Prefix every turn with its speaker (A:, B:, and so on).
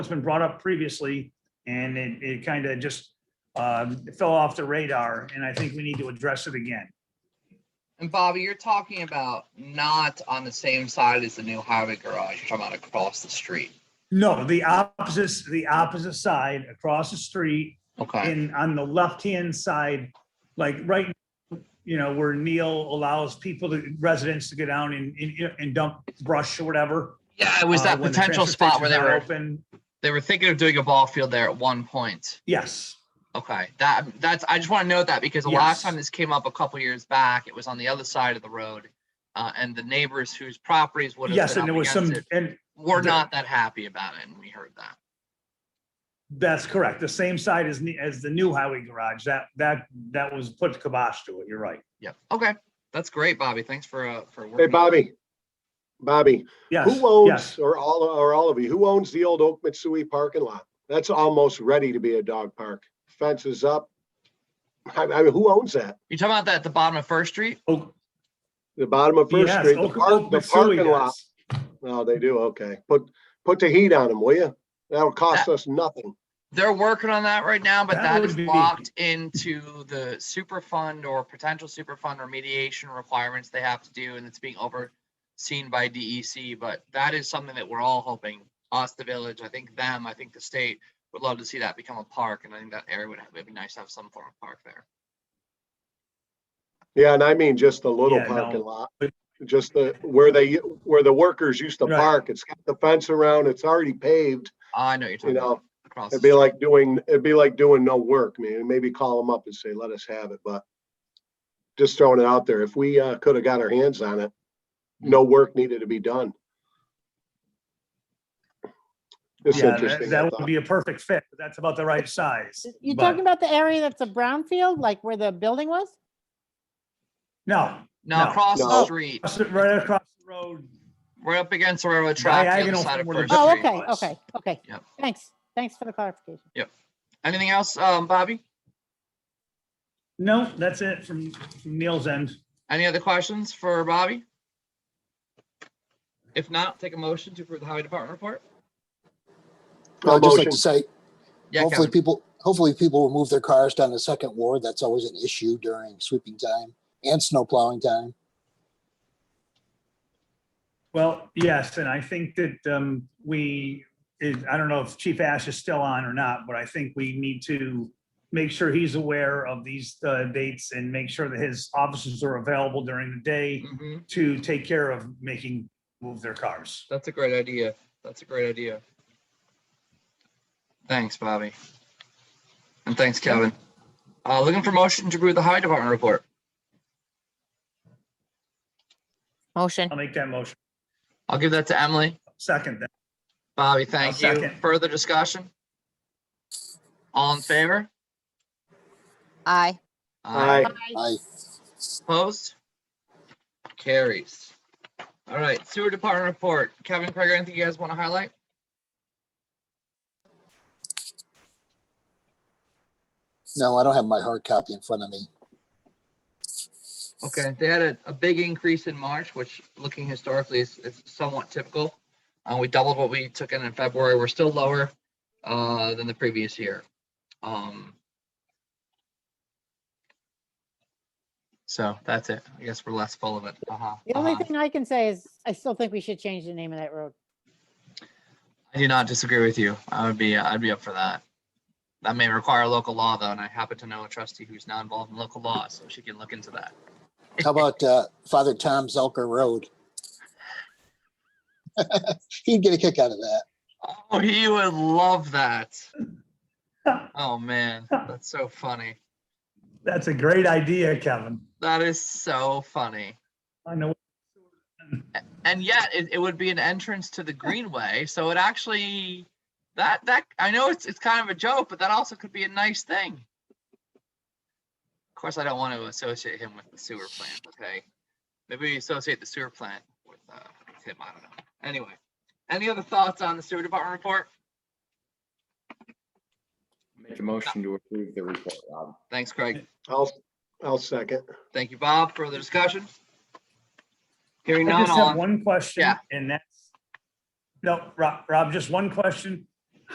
A: it's been brought up previously and it, it kind of just um, fell off the radar and I think we need to address it again.
B: And Bobby, you're talking about not on the same side as the new highway garage. You're talking about across the street.
A: No, the opposite, the opposite side across the street
B: Okay.
A: in, on the left-hand side, like right, you know, where Neil allows people to, residents to go down and, and- and dump brush or whatever.
B: Yeah, it was
A: uh,
B: that
A: when the
B: potential
A: transfer
B: spot where they were
A: station's not Open,
B: they were thinking of doing a ball field there at one point.
A: yes.
B: Okay. That that's I just want to note that because the
A: Yes.
B: last time this came up a couple years back, it was on the other side of the road. Uh, and the neighbors whose properties would have
A: Yes,
B: been
A: and there
B: up
A: was
B: against
A: some,
B: it
A: and
B: were
A: the-
B: not that happy about it, and we heard that.
A: that's correct. The same side as, ne- as the new highway garage. That, that, that was put kibosh to it. You're right.
B: Yep. Okay. That's great, Bobby. Thanks for uh for working.
C: Hey,
B: on that.
C: Bobby. Bobby,
A: Yes.
C: who owns,
A: yes.
C: or all, or all of you, who owns the old Oak Mitsui parking lot? That's almost ready to be a dog park. Fence is up. I, I mean, who owns that?
B: You talking about that at the bottom of First Street?
A: Oak-
C: The bottom of First
A: Yes,
C: Street, the
A: Oak,
C: park,
A: Oak
C: the
A: Mitsui
C: parking lot.
A: does.
C: Oh, they do, okay. Put, put the heat on them, will you? That'll cost us nothing.
B: They're working on that right now, but
A: That
B: that
A: would
B: is
A: be-
B: locked into the super fund or potential super fund remediation requirements they have to do, and it's being overseen by DEC, but that is something that we're all hoping, us, the village, I think them, I think the state, would love to see that become a park, and I think that area would have, it'd be nice to have some form of park there.
C: Yeah, and I mean just the little
A: Yeah, no.
C: parking lot.
A: But-
C: Just the, where they, where the workers used to
A: Right.
C: park. It's got the fence around, it's already paved,
B: I know what you're
C: you
B: talking
C: know?
B: about. across the
C: It'd be
B: street.
C: like doing, it'd be like doing no work, man. Maybe call them up and say, let us have it, but just throwing it out there. If we uh, could have got our hands on it,
A: Hmm.
C: no work needed to be done. It's
A: Yeah, that-
C: interesting. I
A: that would
C: thought.
A: be a perfect fit. That's about the right size.
D: You
A: but-
D: talking about the area that's a brownfield, like where the building was?
A: No,
B: No,
A: no,
B: across the
C: no.
B: street,
A: across the- right across the road.
B: right up against the railroad track, the other
A: Diagonal
B: side
A: from
B: of
A: where the
B: First
A: building-
D: Oh,
B: Street.
D: okay,
A: was.
D: okay, okay.
B: Yep.
D: Thanks, thanks for the clarification.
B: Anything else, um, Bobby?
A: No, that's it from from Neil's end.
B: Any other questions for Bobby? If not, take a motion to approve the highway department report.
C: No
E: I'd just like
C: motion.
E: to say,
B: Yeah,
E: hopefully
B: Kevin.
E: people, hopefully people will move their cars down the second ward. That's always an issue during sweeping time and snow plowing time.
A: Well, yes, and I think that um, we, is- I don't know if Chief Ash is still on or not, but I think we need to make sure he's aware of these uh, dates and make sure that his officers are available during the day
B: Mhm.
A: to take care of making, move their cars.
B: That's a great idea. That's a great idea. Thanks, Bobby. And thanks, Kevin. Uh, looking for motion to approve the highway department report.
F: Motion.
A: I'll make that motion.
B: I'll give that to Emily.
A: Second, that.
B: Bobby, thank you.
A: second.
B: Further discussion? All in favor?
F: Aye.
C: Aye,
E: I,
B: Opposed? Carries. All right, sewer department report. Kevin, Craig, anything you guys want to highlight?
E: no, I don't have my hard copy in front of me.
B: Okay, they had a, a big increase in March, which looking historically is, is somewhat typical. Uh, we doubled what we took in in February. We're still lower, uh, than the previous year. Um. So that's it. I guess we're less full of it. Uh-huh.
D: The only
B: uh-huh.
D: thing I can say is, I still think we should change the name of that road.
B: I do not disagree with you. I would be, I'd be up for that. That may require local law though, and I happen to know a trustee who's not involved in local law, so she can look into that.
E: How about, uh, Father Tom Zelker Road? He'd get a kick out of that.
B: Oh, he would love that. Oh man, that's so funny.
A: That's a great idea, Kevin.
B: That is so funny.
A: I know.
B: And yet it, it would be an entrance to the greenway. So it actually that that I know it's it's kind of a joke, but that also could be a nice thing. Of course, I don't want to associate him with the sewer plant, okay? Maybe we associate the sewer plant with, uh, with him. I don't know. Anyway, any other thoughts on the sewer department report?
G: Make a motion to approve the report, Rob.
B: Thanks, Craig.
C: I'll, I'll second.
B: Thank you, Bob. Further discussion? Hearing
A: I
B: none,
A: just
B: all
A: have
B: in-
A: one question
B: Yeah.
A: and that's, no, Rob, Rob, just one question.